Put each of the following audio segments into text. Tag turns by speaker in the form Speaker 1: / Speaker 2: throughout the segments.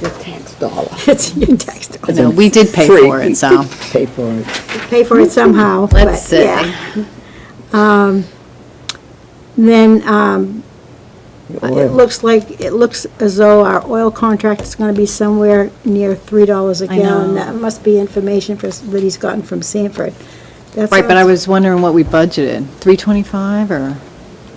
Speaker 1: your tax dollar.
Speaker 2: It's your tax dollar.
Speaker 3: No, we did pay
Speaker 1: Free.
Speaker 3: for it, so.
Speaker 1: Pay for it.
Speaker 2: Pay for it somehow, but
Speaker 3: Let's see.
Speaker 2: yeah. Um, Then, um, it
Speaker 1: Oil.
Speaker 2: looks like, it looks as though our oil contract is gonna be somewhere near three dollars a
Speaker 3: I
Speaker 2: gallon.
Speaker 3: know.
Speaker 2: That must be information for, that he's gotten from Sanford. That
Speaker 3: Right, but I
Speaker 2: sounds-
Speaker 3: was wondering what we budgeted, 325 or?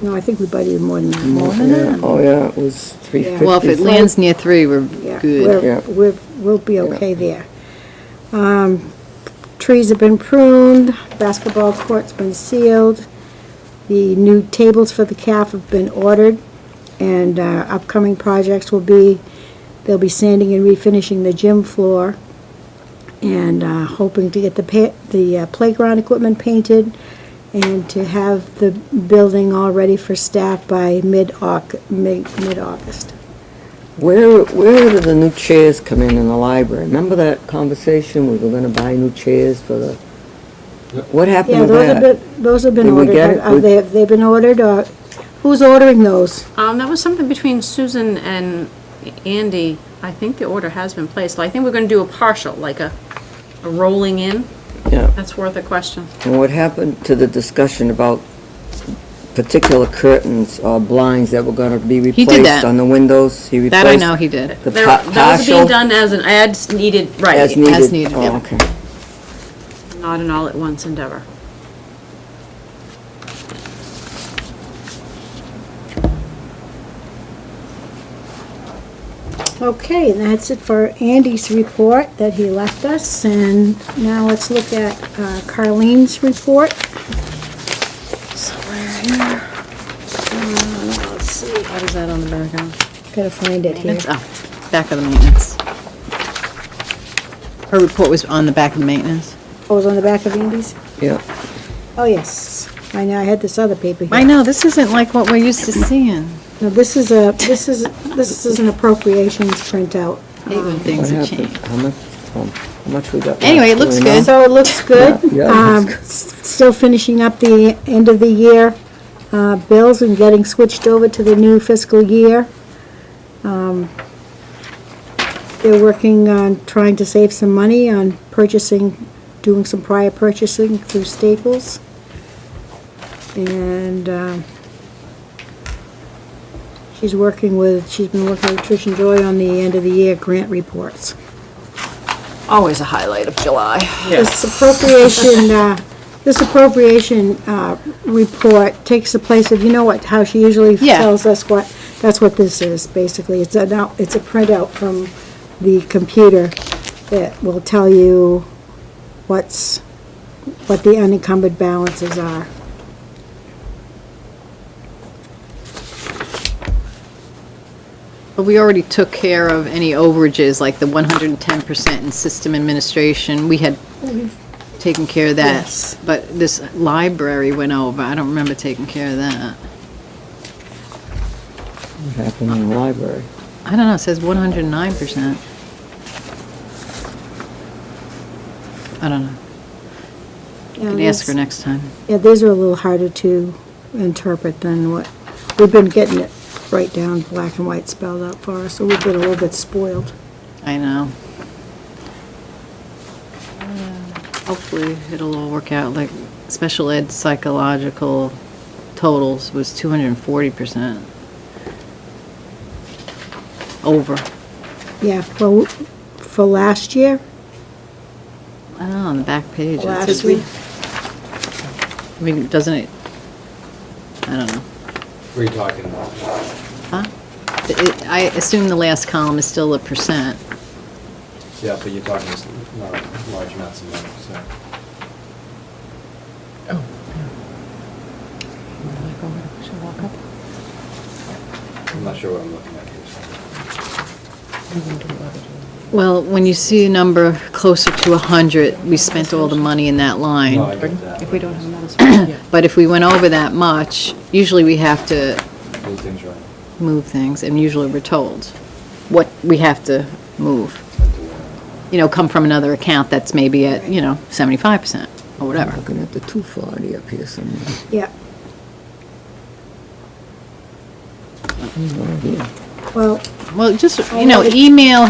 Speaker 2: No, I think we budgeted more than that.
Speaker 3: More than that?
Speaker 1: Oh, yeah, it was three fifty.
Speaker 3: Well, if it lands near 3, we're
Speaker 2: Yeah,
Speaker 3: good.
Speaker 1: Yeah.
Speaker 2: we're, we're, we'll be okay there. Um, trees have been pruned, basketball court's been sealed, the new tables for the calf have been ordered, and, uh, upcoming projects will be, they'll be sanding and refinishing the gym floor, and, uh, hoping to get the pa, the uh, playground equipment painted, and to have the building all ready for staff by mid-Au, mid, mid-August.
Speaker 1: Where, where do the new chairs come in in the library? Remember that conversation, we were gonna buy new chairs for the, what
Speaker 2: Yeah,
Speaker 1: happened to
Speaker 2: those have
Speaker 1: that?
Speaker 2: been, those have been
Speaker 1: Did we
Speaker 2: ordered.
Speaker 1: get it?
Speaker 2: Are
Speaker 3: uh,
Speaker 1: We-
Speaker 2: they, have they been ordered, or who's ordering those?
Speaker 4: Um, that was something between Susan and Andy. I think the order has been placed. I think we're gonna do a partial, like a, a rolling in.
Speaker 1: Yeah,
Speaker 4: That's worth a question.
Speaker 1: and what happened to the discussion about particular curtains or blinds that were gonna be
Speaker 3: did
Speaker 1: replaced
Speaker 3: that.
Speaker 1: on the windows? He
Speaker 3: That I
Speaker 1: replaced
Speaker 3: know he did.
Speaker 1: The
Speaker 4: There-
Speaker 1: pa-
Speaker 4: That was being
Speaker 1: partial
Speaker 4: done as an ads needed,
Speaker 1: as
Speaker 4: right,
Speaker 1: needed?
Speaker 3: needed,
Speaker 1: Oh,
Speaker 3: yeah.
Speaker 1: okay.
Speaker 4: not an all-at-once endeavor.
Speaker 2: Okay, and that's it for Andy's report that he left us, and now let's look at uh, Carlene's report. Somewhere here. Uh, Let's see,
Speaker 3: What is that on the back of?
Speaker 2: gotta find it here.
Speaker 3: Maintenance? Oh, back of the maintenance. Her report was on the back of the maintenance.
Speaker 2: Oh, it was on the back of Andy's?
Speaker 1: Yeah,
Speaker 2: Oh, yes, I know, I had this other paper here.
Speaker 3: I know, this isn't like what we're used to seeing.
Speaker 2: Now, this is a, this is, this is an appropriations printout.
Speaker 3: Hate
Speaker 2: Mm-hmm.
Speaker 3: when
Speaker 1: what
Speaker 3: things have
Speaker 1: happened?
Speaker 3: changed.
Speaker 1: How much, um, how much we got?
Speaker 3: Anyway, it
Speaker 1: left? Do
Speaker 3: looks
Speaker 1: we know?
Speaker 3: good.
Speaker 2: So it looks good.
Speaker 1: Yeah, yeah, it
Speaker 2: Um,
Speaker 1: looks good.
Speaker 2: s- Still finishing up the end of the year uh, bills and getting switched over to the new fiscal year. Um, They're working on trying to save some money on purchasing, doing some prior purchasing through Staples. And um, she's working with, she's been working with Trish and Joy on the end of the year grant reports.
Speaker 3: Always a highlight of July.
Speaker 2: This appropriation, uh, this appropriation uh, report takes the place of, you know what, how she usually
Speaker 3: Yeah.
Speaker 2: tells us what, that's what this is, basically. It's a, now- it's a printout from the computer that will tell you what's, what the unencumbered balances are.
Speaker 3: But we already took care of any overages, like the 110% in system administration. We had taken care of
Speaker 2: Yes.
Speaker 3: that. But this library went over. I don't remember taking care of that.
Speaker 1: What happened in the library?
Speaker 3: I don't know, it says 109%. I don't know.
Speaker 2: Yeah,
Speaker 3: Can ask her
Speaker 2: that's-
Speaker 3: next time.
Speaker 2: Yeah, these are a little harder to interpret than what, we've been getting it right down, black and white spelled out for us, so we've been a little bit spoiled.
Speaker 3: I know. Hopefully, it'll all work out, like, special ed psychological totals was 240%. Over.
Speaker 2: Yeah, well, for last year,
Speaker 3: I don't know, on the back page. it
Speaker 2: last
Speaker 3: says
Speaker 2: week,
Speaker 3: we- I mean, doesn't it, I don't know.
Speaker 5: What are you talking about?
Speaker 3: Huh? It- I assume the last column is still a percent.
Speaker 5: Yeah, but you're talking just not large amounts of money, so.
Speaker 6: Oh,
Speaker 5: I'm not sure what I'm looking at here.
Speaker 3: Well, when you see a number closer to 100, we spent all the money in that line.
Speaker 5: No, I get that.
Speaker 6: If we don't have another spot, yeah.
Speaker 3: But if we went over that much, usually we have to
Speaker 5: These things are-
Speaker 3: move things, and usually we're told what we have to move. You know, come from another account that's maybe at, you know, 75% or Oh, whatever.
Speaker 1: Looking at the two forty up here somewhere.
Speaker 2: yeah.
Speaker 1: Oh, yeah.
Speaker 2: Well,
Speaker 1: Oh,
Speaker 3: Well, just, you know, email